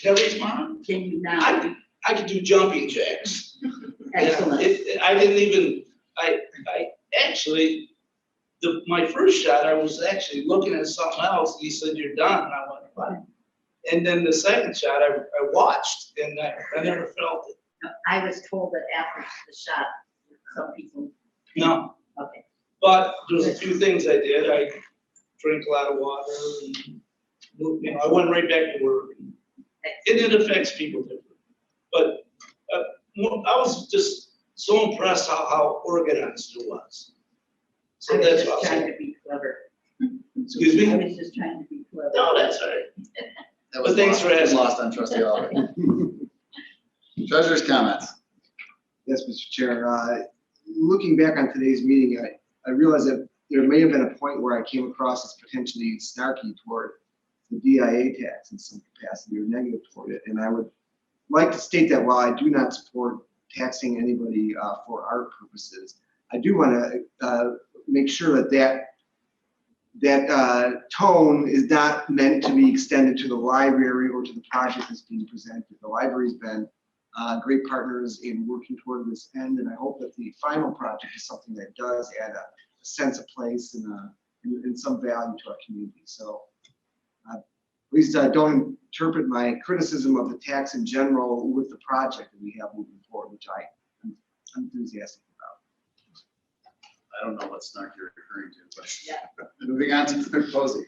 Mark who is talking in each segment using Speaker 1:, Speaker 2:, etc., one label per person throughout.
Speaker 1: Kelly's mom?
Speaker 2: Can you now?
Speaker 1: I, I could do jumping jacks.
Speaker 2: Excellent.
Speaker 1: It- I didn't even, I, I, actually, the, my first shot, I was actually looking at something else, and he said, you're done, and I went, what? And then the second shot, I, I watched, and I, I never felt it,
Speaker 2: I was told that after the shot, some people,
Speaker 1: no.
Speaker 2: okay.
Speaker 1: But there's a few things I did, I drank a lot of water, and, you know, I went right back to work. And it affects people differently, but, uh, mo- I was just so impressed how, how organized it was. So
Speaker 2: I was
Speaker 1: that's
Speaker 2: just
Speaker 1: what I
Speaker 2: trying
Speaker 1: said,
Speaker 2: to be clever.
Speaker 1: excuse
Speaker 2: I
Speaker 1: me?
Speaker 2: was just trying to be clever.
Speaker 1: No, that's all right.
Speaker 3: That
Speaker 1: But
Speaker 3: was
Speaker 1: thanks
Speaker 3: lost-
Speaker 1: for asking.
Speaker 3: Lost on trustee Oliver. Treasurer's comments.
Speaker 4: Yes, Mr. Chair. Uh, Looking back on today's meeting, I, I realize that there may have been a point where I came across as potentially snarky toward the DIA tax in some capacity or negative toward it. And I would like to state that while I do not support taxing anybody uh, for art purposes, I do want to make sure that that, that uh, tone is not meant to be extended to the library or to the project that's being presented. The library's been uh, great partners in working toward this end, and I hope that the final project is something that does add a sense of place and, uh, and and some value to our community, so. uh, Please uh, don't interpret my criticism of the tax in general with the project that we have moving forward, which I am enthusiastic
Speaker 3: I don't know what snark you're referring to, but.
Speaker 2: Yeah.
Speaker 3: Moving on to clerk Posey.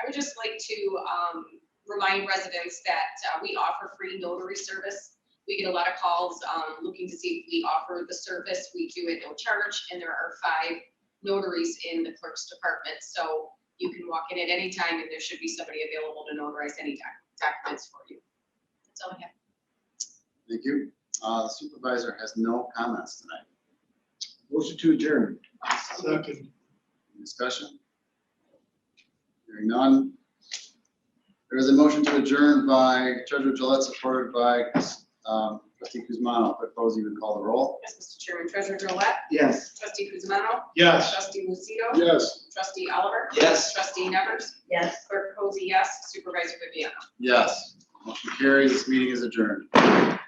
Speaker 5: I would just like to um, remind residents that uh, we offer free notary service. We get a lot of calls um, looking to see if we offer the service. We do it no charge, and there are five notaries in the clerk's department. So you can walk in at any time, and there should be somebody available to notarize any doc- documents for you. That's all I have.
Speaker 3: Thank you. Uh, Supervisor has no comments tonight.
Speaker 4: about. Motion to adjourn.
Speaker 1: Second.
Speaker 3: Any Discussion? Hearing none. There is a motion to adjourn by Treasurer Gillette, supported by um, trustee Kuzma. Clerk Posey would call the roll.
Speaker 5: Yes, Mr. Chairman, Treasurer Drollet,
Speaker 4: Yes.
Speaker 5: Trustee Kuzma,
Speaker 1: Yes.
Speaker 5: Trustee Lucido,
Speaker 3: Yes.
Speaker 5: Trustee Oliver,
Speaker 1: Yes.
Speaker 5: Trustee Nevers,
Speaker 2: Yes.
Speaker 5: Clerk Posey, yes, Supervisor Viviano.
Speaker 3: Yes. Motion carries. This meeting is adjourned.